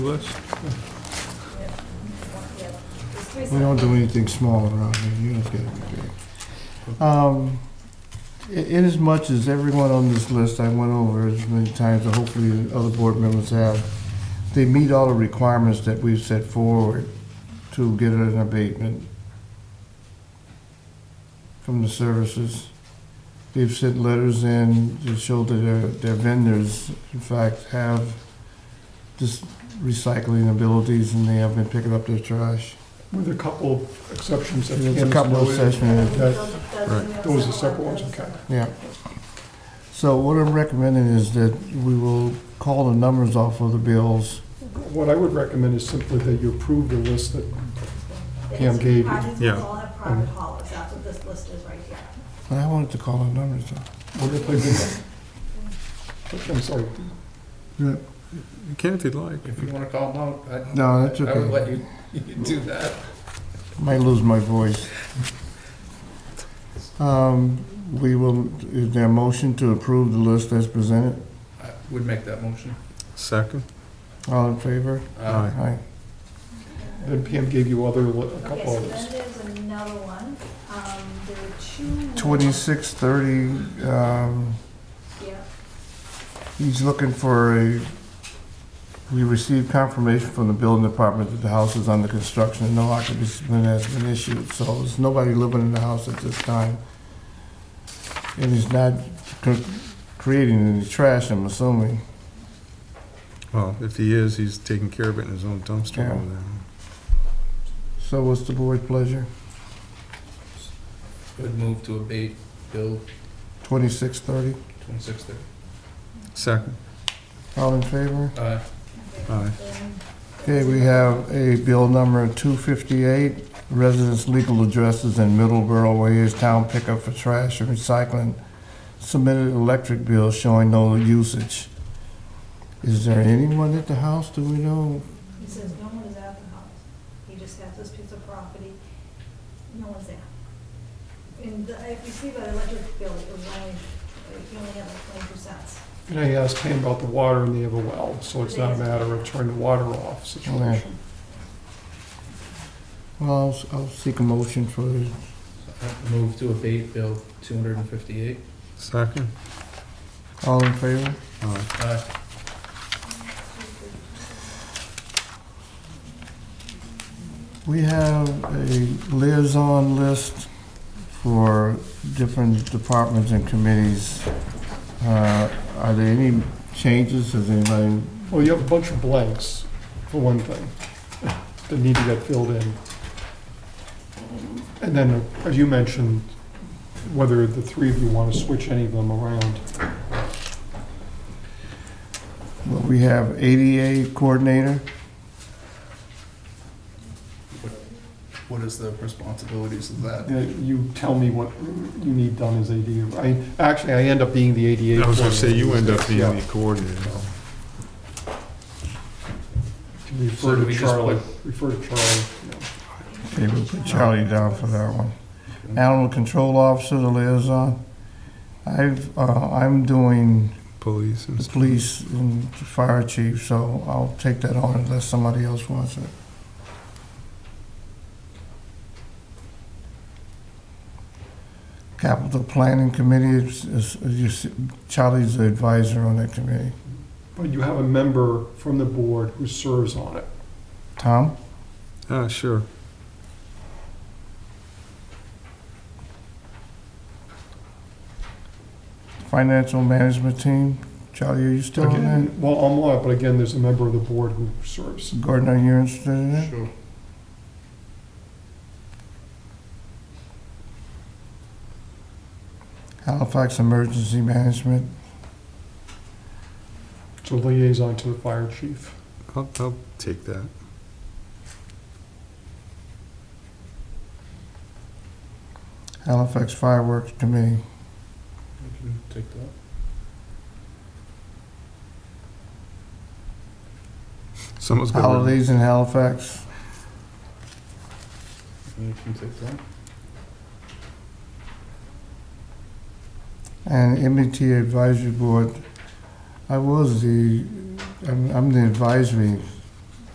list? We don't do anything small around here, you don't get it big. Um, i- In as much as everyone on this list I went over as many times, and hopefully the other board members have, they meet all the requirements that we've set forward to get an abatement from the services. They've sent letters in to show that their, their vendors, in fact, have this recycling abilities and they have been picking up their trash. With a couple of exceptions. that There's a Ken's couple of noted. sessions, That's- Those are separate ones, okay. Yeah. So what I'm recommending is that we will call the numbers off of the bills. What I would recommend is simply that you approve the list that Pam gave you. Mm-hmm. Parties Yeah. will all have private haulers, that's what this list is right here. I wanted to call the numbers off. We're gonna play bingo. I'm sorry. You can if you'd like. If you want to call them out, I- No, that's I would okay. let you you do that. Might lose my voice. Um, We will, is there a motion to approve the list as presented? I would make that motion. Second? All in favor? Uh. Aye. Aye. Then Pam gave you other, li- a Okay, couple so others. then there's another one, um, there were two. more. Twenty-six thirty, um, Yeah, he's looking for a, we received confirmation from the building department that the house is under construction and no occupancy permit has been issued, so there's nobody living in the house at this time. And he's not cr- creating any trash, I'm assuming. Well, if he is, he's taking care of it in his own dumpster Yeah. over there. So what's the board's pleasure? Would move to abate Bill Twenty-six thirty, 2630. Second? all in favor? Uh, Aye. then Okay, we have a bill number 258, residents' legal addresses in Middleborough, Wayers Town pickup for trash and recycling, submitted electric bill showing no usage. Is there anyone at the house, do we know? he says no one is at the house, he just has this piece of property, no one's there. And the- if you see by the electric bill, it was only, he only had like twenty-two cents. And I asked Pam about the water and they have a well, so it's not a matter of turning the water off situation. Well, I'll s- I'll seek a motion for, I Move to abate Bill 258. Second? all in favor? Aye. Uh, We have a liaison list for different departments and committees. Uh, Are there any changes, has anybody Well, you have a bunch of blanks, for one thing, that need to get filled in. And then, as you mentioned, whether the three of you want to switch any of them around. Well, we have ADA coordinator, What is the responsibilities of that? Yeah, uh, You tell me what you need done as ADA. I, actually, I end up being the ADA. I was gonna say, you end coordinator. up being Yeah. the coordinator. Refer So do to we just Charlie, refer to Charlie. okay, we'll put Charlie down for that one. Animal control officer, the liaison. I've, uh, I'm doing Police and the stuff. police and fire chief, so I'll take that on unless somebody else wants it. Capital planning committee, is- is- you see- Charlie's the advisor on that committee. But you have a member from the board who serves on it. Tom? Ah, sure. Financial management team, Charlie, are you still on that? Again, Well, I'm on it, but again, there's a member of the board who serves. Gardner, you're interested in it? Sure. Halifax Emergency Management, So liaison to the fire chief. I'll, I'll take that. Halifax Fireworks Committee. You can take that. Someone's got. Holidays in Halifax, You can take that. and E MBTA Advisory Board. I was the, I'm, I'm the advisory